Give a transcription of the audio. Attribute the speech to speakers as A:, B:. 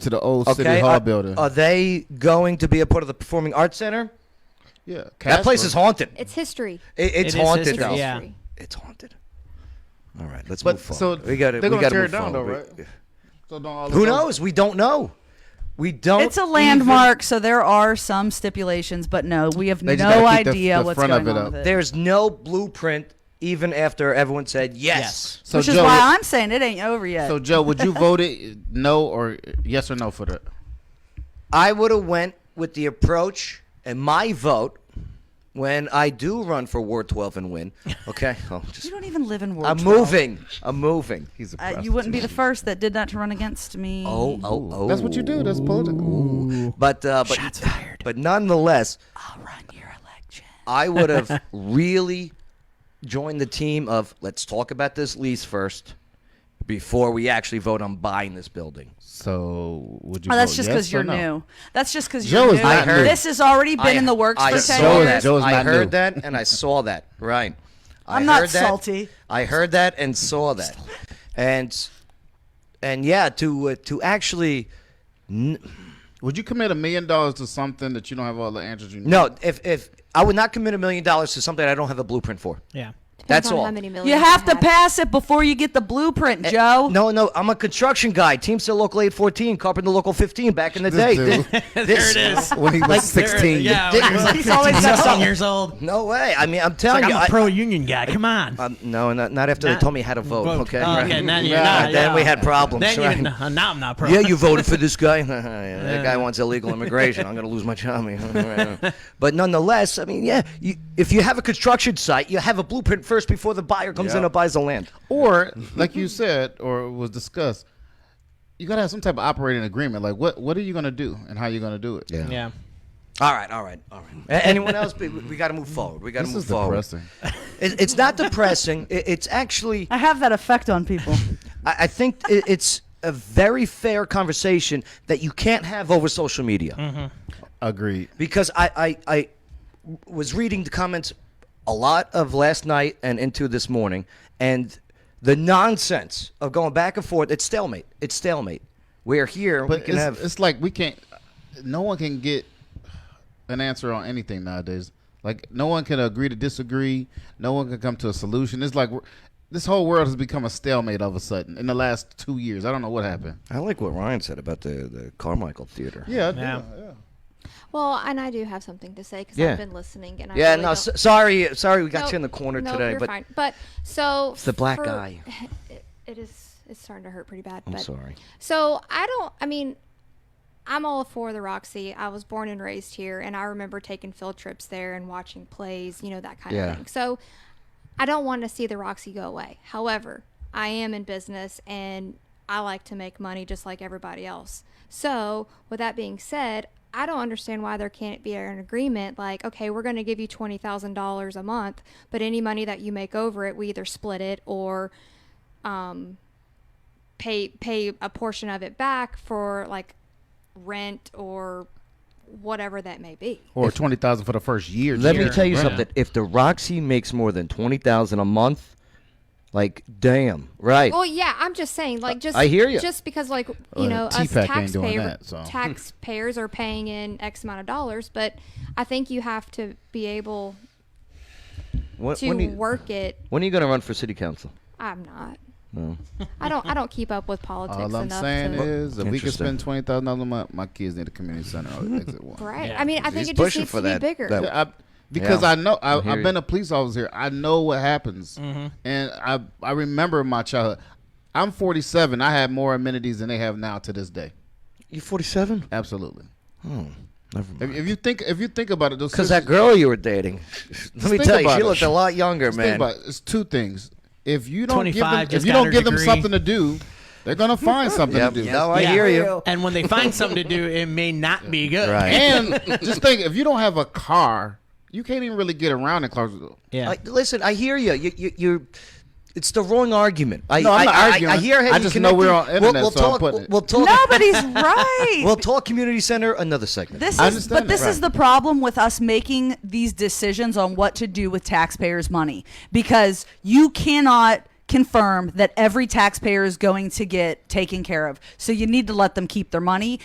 A: to the old
B: Okay,
A: city hall
C: uh,
B: are,
A: building.
B: are they going to be a part of the Performing Arts Center?
A: yeah,
B: That place
A: Casper.
B: is haunted.
D: It's history.
B: It, it's
E: It is
B: haunted
E: history,
B: though.
E: yeah.
B: It's haunted. All right, let's
A: But
B: move forward.
A: so
B: we got to.
A: they're
B: we
A: gonna
B: got
A: tear
B: move
A: it down,
B: forward.
A: though,
B: We-
A: right? So don't all
B: Who
A: of them-
B: knows? We don't know. We
A: Oh,
B: don't.
C: It's a landmark, so there are some stipulations, but no, we have
A: They just
C: no
A: gotta keep the-
C: idea
A: the
C: what's
A: front of
C: going on
A: it up.
C: with it.
B: e-, There's no blueprint, even after everyone said yes.
A: So
C: Which
A: Joe,
C: is why I'm saying it ain't over yet.
A: so Joe, would you vote it no or yes or no for
C: Uh,
A: that?
B: I would have went with the approach and my vote when I do run for Ward 12 and win. Okay, I'll
C: you
B: just,
C: don't even live in Ward
B: I'm
C: 12.
B: moving. I'm moving.
A: He's a
C: Uh, you wouldn't be the first that did that to run against me.
B: Oh, oh, oh.
A: That's what you do. That's political.
B: But uh, but
C: Shots fired.
B: but nonetheless,
C: I'll run your election.
B: I would have really joined the team of let's talk about this lease first before we actually vote on buying this building.
A: So would you?
C: Oh, that's
A: vote
C: just
A: yes
C: because
A: or
C: you're
A: no?
C: new. That's just because
A: Joe
C: you're
A: is
C: new.
A: not new.
C: This has already been in the works
B: I
C: for
B: saw
C: ten
A: Joe is-
C: years.
A: Joe is
B: I
A: not
B: heard
A: new.
B: that and I saw that. Right. I
C: I'm not
B: heard that-
C: salty.
B: I heard that and saw that, and and yeah, to uh, to actually
A: Would you commit a million dollars to something that you don't have all the answers you need?
B: no, if if I would not commit a million dollars to something I don't have a blueprint for.
E: Yeah.
B: That's
D: Depends on
B: all.
D: How many millions
C: You have to
D: have.
C: pass it before you get the
A: Eh,
C: blueprint, Joe.
B: No, no, I'm a construction guy. Teamster Local 814, Carpenter Local 15 back in the
A: This
B: day.
A: dude.
E: There it is.
A: When he was
E: There,
A: sixteen,
E: yeah. when I was like
C: He's always
E: 15
C: got
E: something
C: something.
E: years old. It's
B: No way. I mean, I'm telling
E: Like,
B: you.
E: I'm a
B: I-
E: pro union guy. Come on.
B: um, no, not, not after they told me how to vote. Okay.
E: Oh,
B: right.
E: okay. Now, you-
A: Right.
E: now-
B: And then
E: yeah.
B: we had problems.
E: Then
B: right?
E: you, no, now I'm not pro.
B: yeah, you voted for this guy. Yeah, that guy wants illegal immigration. I'm going to lose my job. but nonetheless, I mean, yeah, you, if you have a construction site, you have a blueprint first before the buyer comes in
A: Yeah.
B: and buys the land.
A: or like you said, or was discussed, you gotta have some type of operating agreement. Like what what are you gonna do and how you gonna do it? Yeah.
E: Yeah.
B: All right, all right, all right. A- Anyone else? We, got to move forward. We got to
A: This
B: move
A: is
B: forward.
A: depressing.
B: It, it's not depressing. It, it's actually
C: I have that effect on people.
B: I, I think it, it's a very fair conversation that you can't have over social media
A: Agreed.
B: because I, I I was reading the comments a lot of last night and into this morning, and the nonsense of going back and forth. It's stalemate. It's stalemate. We're here.
A: But
B: we can
A: it's,
B: have.
A: it's like we can't. No one can get an answer on anything nowadays. Like no one can agree to disagree. No one can come to a solution. It's like we're- this whole world has become a stalemate all of a sudden in the last two years. I don't know what happened.
B: I like what Ryan said about the, the Carmichael Theater.
A: Yeah.
E: Yeah.
D: Well, and I do have something to say because
B: Yeah.
D: I've been listening and I
B: Yeah.
D: really
B: no.
D: don't-
B: S- sorry. Sorry. We got
D: Nope.
B: you in the corner
D: Nope,
B: today.
D: you're
B: but
D: fine. But so
B: the black
D: for-
B: eye.
D: It, it is. It's starting to hurt pretty bad.
B: I'm
D: but,
B: sorry.
D: So I don't. I mean, I'm all for the Roxy. I was born and raised here, and I remember taking field trips there and watching plays. You know that kind
B: Yeah.
D: of thing. So I don't want to see the Roxy go away. However, I am in business and I like to make money just like everybody else. So, with that being said, I don't understand why there can't be an agreement like, okay, we're going to give you $20,000 a month, but any money that you make over it, we either split it or um, pay pay a portion of it back for like rent or whatever that may be.
A: Or twenty thousand for the first year.
B: Let me
A: Jerry.
B: tell you
E: Right.
B: something. If the Roxy makes more than twenty thousand a month, like damn, right?
D: Well, yeah, I'm just saying, like, just
B: I hear ya.
D: Just because, like, you
A: Well,
D: know, us
A: TPAC ain't doing
D: taxpayer,
A: that, so.
D: taxpayers are paying in X amount of dollars, but I think you have to be able
B: When,
D: to
B: Uh, when are you,
D: work it.
B: when are you going to run for city council?
D: I'm not. I don't. I don't keep up with politics
A: All I'm
D: enough.
A: saying
D: to,
A: is, if we could
B: Interesting.
A: spend twenty thousand dollars a month, my kids need a community center or exit one.
D: right?
E: Yeah.
D: I mean, I
B: He's
D: think it just
B: pushing
D: needs
B: for
D: to
B: that-
D: be bigger.
B: that-
A: Yeah, I, because
B: Yeah.
A: I know I,
B: I hear
A: I've
B: you.
A: been a police officer. here. I know what happens, and I I remember my childhood. I'm 47. I had more amenities than they have now to this day.
B: You forty-seven?
A: Absolutely.
B: Oh, never mind.
A: If, if you think if you think about it, those
B: Because that
A: sisters-
B: girl you were dating, let me
A: think
B: tell you,
A: about
B: she
A: it.
B: looked a lot younger,
A: just think
B: man.
A: about it. it's two things. If you don't give
E: 25,
A: them, if
E: just
A: you
E: got
A: don't
E: her
A: give them
E: degree.
A: something to do, they're gonna find something
B: Yep.
A: to do.
B: No, I
E: Yeah.
B: hear you.
E: And when they find something to do, it may not be good.
B: Right.
A: and just think, if you don't have a car, you can't even really get around in Clarksville.
E: Yeah.
B: I, listen, I hear you. You, you, you're. It's the wrong argument. I,
A: No, I'm
B: I-
A: not
B: I-
A: arguing.
B: I, hear how
A: I
B: you
A: just know we're
B: connected.
A: on internet, so I'm
B: talk,
A: putting
B: we'll,
A: it.
B: we'll talk.
C: Nobody's right.
B: We'll talk community center another segment.
C: This
A: I
C: is,
A: understand
C: but this
A: that.
C: is the problem with us making these decisions on what to do with taxpayers' money because you cannot confirm that every taxpayer is going to get taken care of. So you need to let them keep their money